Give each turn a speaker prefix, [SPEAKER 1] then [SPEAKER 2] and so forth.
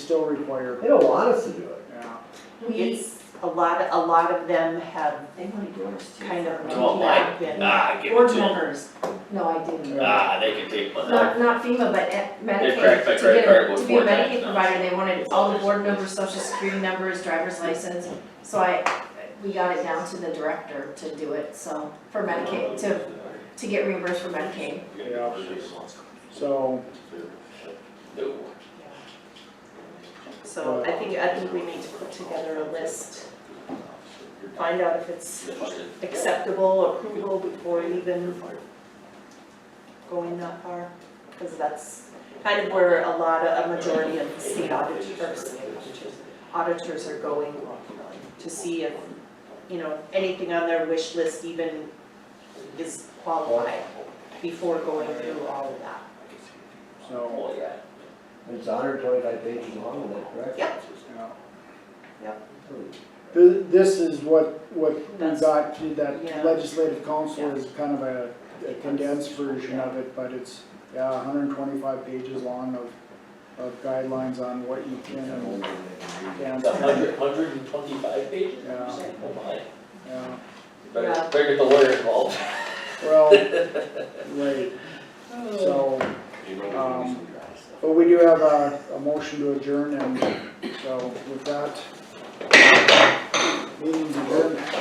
[SPEAKER 1] still required.
[SPEAKER 2] They don't want us to do it.
[SPEAKER 1] Yeah.
[SPEAKER 3] We,
[SPEAKER 4] It's, a lot, a lot of them have
[SPEAKER 3] they wanted yours too.
[SPEAKER 4] kind of not
[SPEAKER 5] Well, like,
[SPEAKER 4] been
[SPEAKER 5] ah, give it
[SPEAKER 4] board
[SPEAKER 5] to 'em.
[SPEAKER 4] members.
[SPEAKER 3] No, I didn't.
[SPEAKER 5] Ah, they can take one
[SPEAKER 3] Not,
[SPEAKER 5] out.
[SPEAKER 3] not FEMA, but at Medicaid,
[SPEAKER 5] cracked my
[SPEAKER 3] to
[SPEAKER 5] credit
[SPEAKER 3] get
[SPEAKER 5] card
[SPEAKER 3] a, to be
[SPEAKER 5] before
[SPEAKER 3] a Medicaid
[SPEAKER 5] tax, no.
[SPEAKER 3] provider, they wanted all the board numbers, social security numbers, driver's license. So I, we got it down to the director to do it, so, for Medicaid, to, to get reimbursed for Medicaid.
[SPEAKER 1] Yeah. So,
[SPEAKER 4] So I think, I think we need to put together a list, find out if it's acceptable, approval before even going that far. Because that's kind of where a lot of, a majority of the state auditors, state auditors, auditors are going to see if, you know, anything on their wish list even is qualified before going through all of that.
[SPEAKER 1] so,
[SPEAKER 2] It's hundred twenty-five pages long, is that correct?
[SPEAKER 4] Yep.
[SPEAKER 1] yeah.
[SPEAKER 2] Hmm.
[SPEAKER 1] Th- This is what, what we
[SPEAKER 4] That's-
[SPEAKER 1] got to, that
[SPEAKER 4] yeah.
[SPEAKER 1] legislative council
[SPEAKER 4] Yeah.
[SPEAKER 1] is kind of a a condensed version of it, but it's, yeah, hundred and twenty-five pages long of, of guidelines on what you can and can't.
[SPEAKER 5] A hundred, hundred and twenty-five pages?
[SPEAKER 1] Yeah.
[SPEAKER 5] Oh my,
[SPEAKER 1] Yeah,
[SPEAKER 5] better,
[SPEAKER 4] Yeah.
[SPEAKER 5] better get the lawyer involved.
[SPEAKER 1] well, right, so, um, but we do have a, a motion to adjourn and so with that, meeting's adjourned.